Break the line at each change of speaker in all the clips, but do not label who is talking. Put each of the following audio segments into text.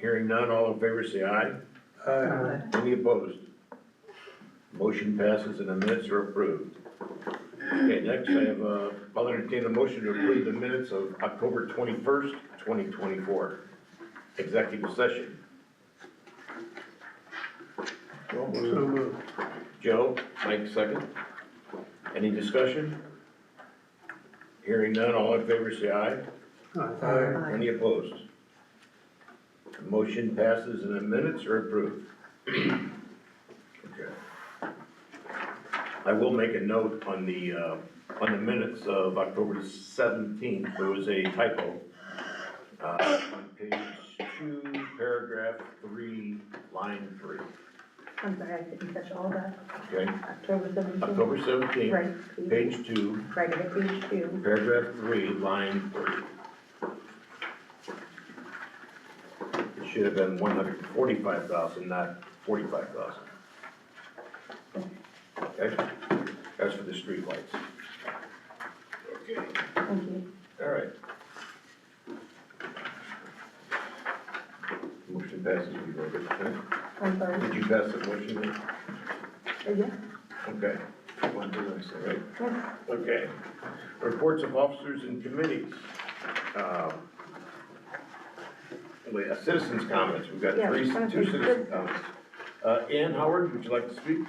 Hearing none, all in favor say aye.
Aye.
Any opposed? Motion passes and the minutes are approved. Okay, next I have, uh, I'll entertain a motion to approve the minutes of October twenty-first, twenty twenty-four. Executive session.
So moved.
Joe, Mike second. Any discussion? Hearing none, all in favor say aye.
Aye.
Any opposed? Motion passes and the minutes are approved. Okay. I will make a note on the, uh, on the minutes of October seventeenth, there was a typo. Uh, on page two, paragraph three, line three,
I'm sorry, I didn't catch all that.
okay?
October seventeenth.
October seventeenth,
Right, page,
page two,
right, at page two.
paragraph three, line three. It should have been one hundred and forty-five thousand, not forty-five thousand. Okay, that's for the streetlights. Okay,
Thank you.
all right. Motion passes, you voted, okay?
I'm sorry. Uh,
Did you pass the motion?
Yeah,
Okay. One, two, I say, right?
yeah.
Okay. Reports of officers and committees. Um, Wait, uh, citizens' comments, we've got
Yeah,
three,
I
two
think
citizen
good.
comments. Uh, Ann Howard, would you like to speak?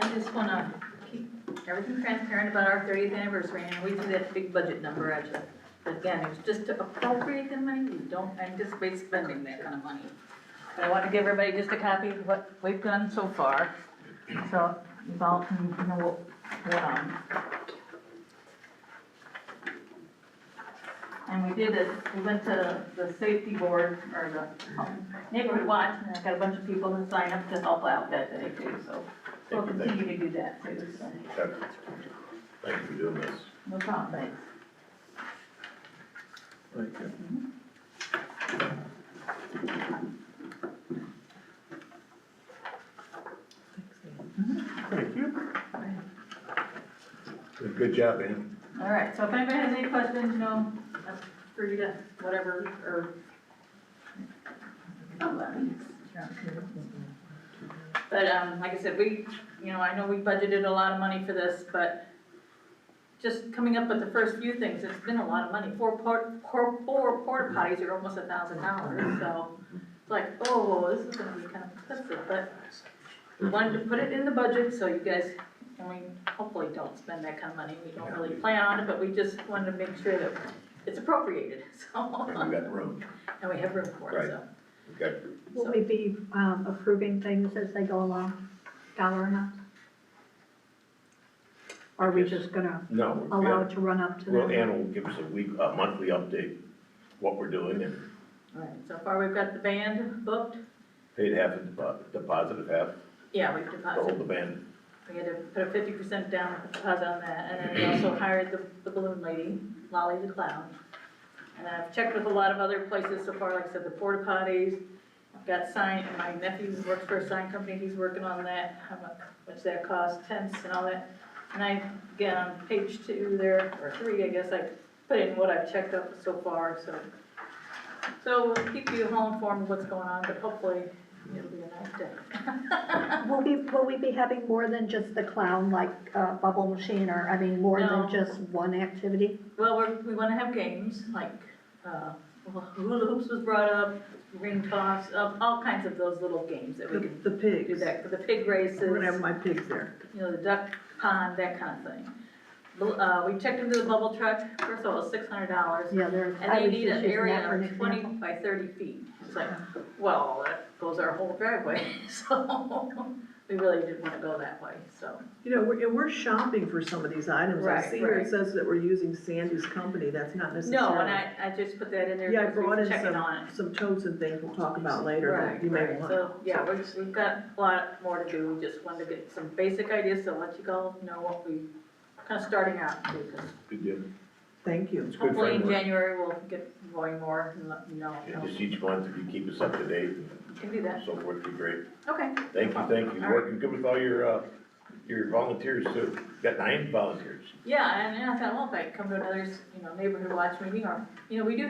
I just wanna keep everything transparent about our thirtieth anniversary, and we threw that big budget number at you. But Again, it was just to appropriate the money, we don't anticipate spending that kind of money. But I want to give everybody just a copy of what we've done so far, so you all can know what went on. And we did it, we went to the safety board, or the neighborhood watch, and I got a bunch of people to sign up to help out that day too, so. We'll
Thank you, thank
continue to do that too, so,
Okay. Thank you for doing this.
no problem, thanks.
Thank you.
Thank you.
Good job, Ann.
All right, so if anybody has any questions, you know, that's for you to, whatever, or. Oh, well, yes. But, um, like I said, we, you know, I know we budgeted a lot of money for this, but just coming up with the first few things, it's been a lot of money. Four port, four, four porta potties are almost a thousand dollars, so it's like, oh, this is gonna be kind of expensive, but we wanted to put it in the budget so you guys, I mean, hopefully don't spend that kind of money. We don't really plan on it, but we just wanted to make sure that it's appropriated, so,
And we got room,
and we have room for it, so.
we got
Will we be um, approving things as they go along, dollar amounts? Or Are we
Yes.
just gonna
No, we've
allow
got-
it to run up to them?
well, Ann will give us a week, a monthly update, what we're doing and
All right, so far we've got the band booked.
paid half of the depo- deposit, of half
Yeah, we've
to
deposited.
hold the band.
We had to put a fifty percent down deposit on that, and then we also hired the, the balloon lady, Lolly the clown. And I've checked with a lot of other places so far, like I said, the porta potties, I've got sign, and my nephew works for a sign company, he's working on that, how much, what's that cost, tents and all that. And I, again, on page two there, or three, I guess, I put in what I've checked up so far, so. So we'll keep you all informed of what's going on, but hopefully it'll be a nice day.
Will we, will we be having more than just the clown, like uh, bubble machine, or, I mean, more
No.
than just one activity?
Well, we're, we wanna have games, like, uh, hula hoops was brought up, ring toss, um, all kinds of those little games that we
The,
can
the
do
pigs,
that, for the pig
I'm gonna
races,
have my pigs there.
you know, the duck pond, that kind of thing. Bl- Uh, we checked into the bubble truck, first of all, it's six hundred dollars,
Yeah, there,
and
I
they
was
need
just using
an
that
area
for an
of twenty
example.
by thirty feet. It's like, well, that goes our whole driveway, so, we really didn't wanna go that way, so.
You know, we're, and we're shopping for some of these items. I
Right,
see here
right.
it says that we're using Sandy's company, that's not necessarily.
No, and I, I just put that in there
Yeah, I
because we
brought
were
in
checking on it.
some, some totes and things we'll talk about later
Right,
that you may
right,
want.
so, yeah, we're just, we've got a lot more to do, we just wanted to get some basic ideas, so let you all know what we, kind of starting out, because
Good deal.
Thank you.
It's good
hopefully in
framework.
January we'll get going more and let you know, you
And
know,
Just each month, if you keep us up to date
you can do
and
that,
so forth, be great.
okay.
Thank you, thank you,
All right.
working good with all your, uh, your volunteers too, got nine volunteers.
Yeah, and, and I thought, well, if I come to another, you know, neighborhood watch meeting, or, you know, we do